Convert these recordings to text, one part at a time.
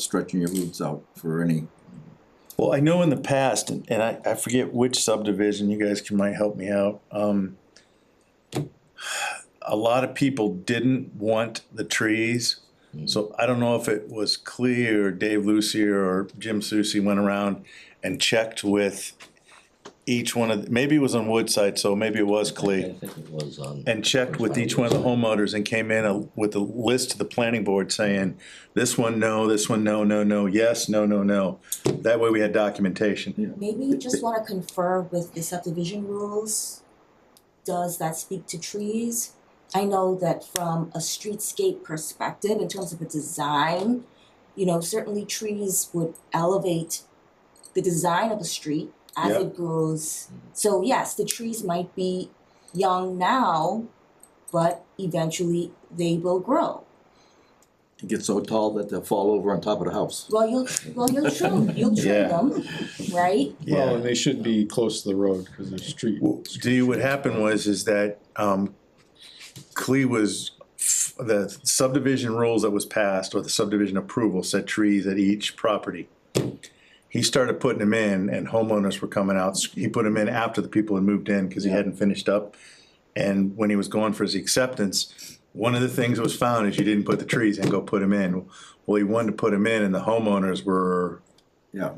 stretching your roots out for any, Well, I know in the past, and and I, I forget which subdivision, you guys can, might help me out, um. A lot of people didn't want the trees, so I don't know if it was clear, Dave Lucier or Jim Susi went around and checked with. Each one of, maybe it was on Woodside, so maybe it was I Clee, think it was um, on. and checked with each one of the homeowners and came in a- with a list to the planning board saying. This one, no, this one, no, no, no, yes, no, no, no, that way we had documentation. Maybe you just wanna confer with the subdivision rules. Does that speak to trees? I know that from a streetscape perspective, in terms of a design, you know, certainly trees would elevate the design of a street as Yeah. it grows. So yes, the trees might be young now, but eventually they will grow. it gets so tall that they'll fall over on top of the house. Well, you'll, well, you'll trim, you'll trim Yeah. them, right? Yeah. Well, and they should be close to the road, cause there's street. Well, See, what happened was is that um Clee was f- the subdivision rules that was passed or the subdivision approval said trees at each property. He started putting them in and homeowners were coming out. He put them in after the people had moved in because he hadn't finished up. And when he was going for his acceptance, one of the things that was found is you didn't put the trees in, go put them in. Well, he wanted to put them in and the homeowners were, Yeah,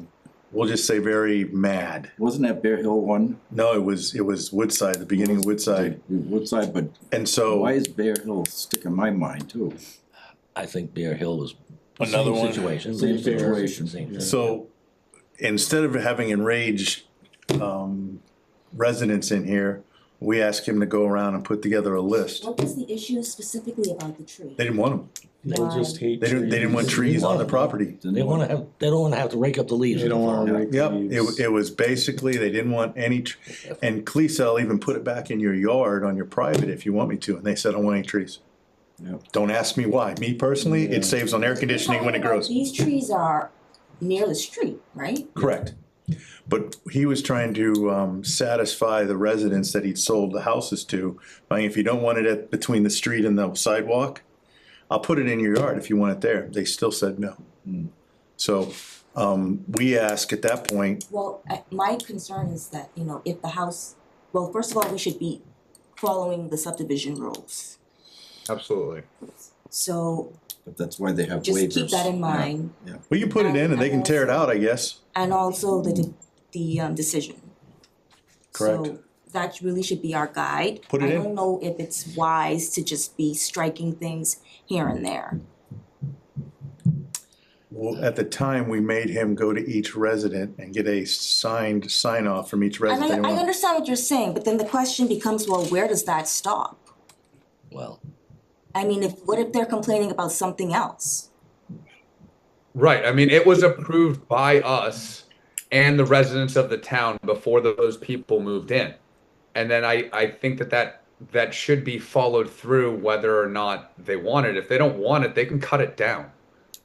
we'll just say very mad. wasn't that Bear Hill one? No, it was, it was Woodside, the beginning of Woodside. Woodside, but And so. why is Bear Hill stick in my mind too? I think Bear Hill was. Another same one. Situation. Same situation. Same thing. So instead of having enraged um, residents in here, we asked him to go around and put together a list. What was the issue specifically about the tree? They didn't want them. People just hate They trees. didn't, they didn't want trees on the property. They wanna have, they don't wanna have to rake up the leaves. They don't wanna rake Yep, leaves. it, it was basically, they didn't want any, tr- and Cleese, i even put it back in your yard on your private if you want me to, and they said, I don't want any trees. Yep. Don't ask me why. Me personally, Yeah. it saves on air conditioning when it You're talking grows. about These trees are near the street, right? Correct. But he was trying to um, satisfy the residents that he'd sold the houses to. Like, if you don't want it at, between the street and the sidewalk, I'll put it in your yard if you want it there. They still said no. Hmm. So um, we asked at that point, Well, I, my concern is that, you know, if the house, well, first of all, we should be following the subdivision rules. Absolutely. So But that's why they have waivers. just keep that in Yeah. mind, well, you put it in and they can tear it out, I guess. and also the, de- the, um, decision. Correct. So that really should be our guide. Put it I in. don't know if it's wise to just be striking things here and there. Well, at the time, we made him go to each resident and get a signed sign off from each And resident. I, They I want- understand what you're saying, but then the question becomes, well, where does that stop? Well, I mean, if, what if they're complaining about something else? Right. I mean, it was approved by us and the residents of the town before those people moved in. And then I, I think that that, that should be followed through whether or not they want it. If they don't want it, they can cut it down.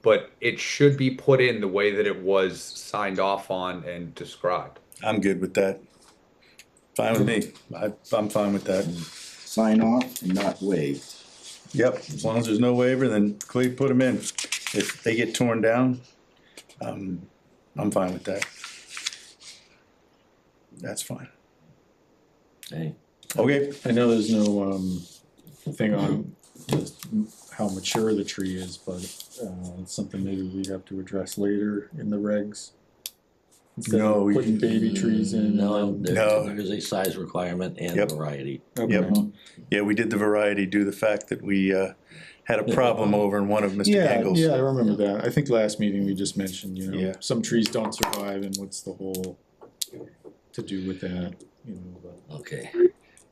But it should be put in the way that it was signed off on and described. I'm good with that. Fine with me. I, I'm fine with that. Sign off and not waived. Yep, as long as there's no waiver, then Clay put them in. If they get torn down, um, I'm fine with that. That's fine. hey, Okay, I know there's no, um, thing on just how mature the tree is, but, uh, it's something maybe we have to address later in the regs. Instead of No, you- Putting baby trees in. no, um, there, No. there is a size requirement and Yep. variety. okay. yeah, we did the variety due to the fact that we, uh, had a problem over in one of Mr. Yeah, Engel's. yeah, I remember that. I think last meeting we just mentioned, you know, Yeah. some trees don't survive and what's the whole to do with that, you know, but. Okay.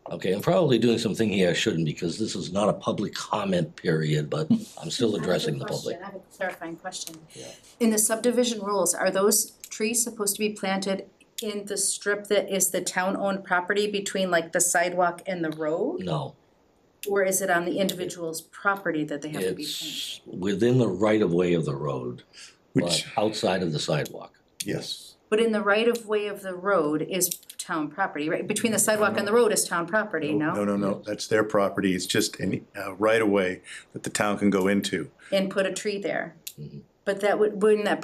Okay, I'm probably doing something here I shouldn't because this is not a public comment period, but I'm still addressing the public. I have a clarifying question. In the subdivision rules, are those trees supposed to be planted in the strip that is the town-owned property between like the sidewalk and the road? No, Or is it on the individual's property that they have to be planted? it's within the right of way of the road, but Which, outside of the sidewalk. yes, But in the right-of-way of the road is town property, right? Between the sidewalk and the road is town property, no? no, no, no, that's their property. It's just any, uh, right away that the town can go into. Mm-hmm. And put a tree there. But that would, wouldn't that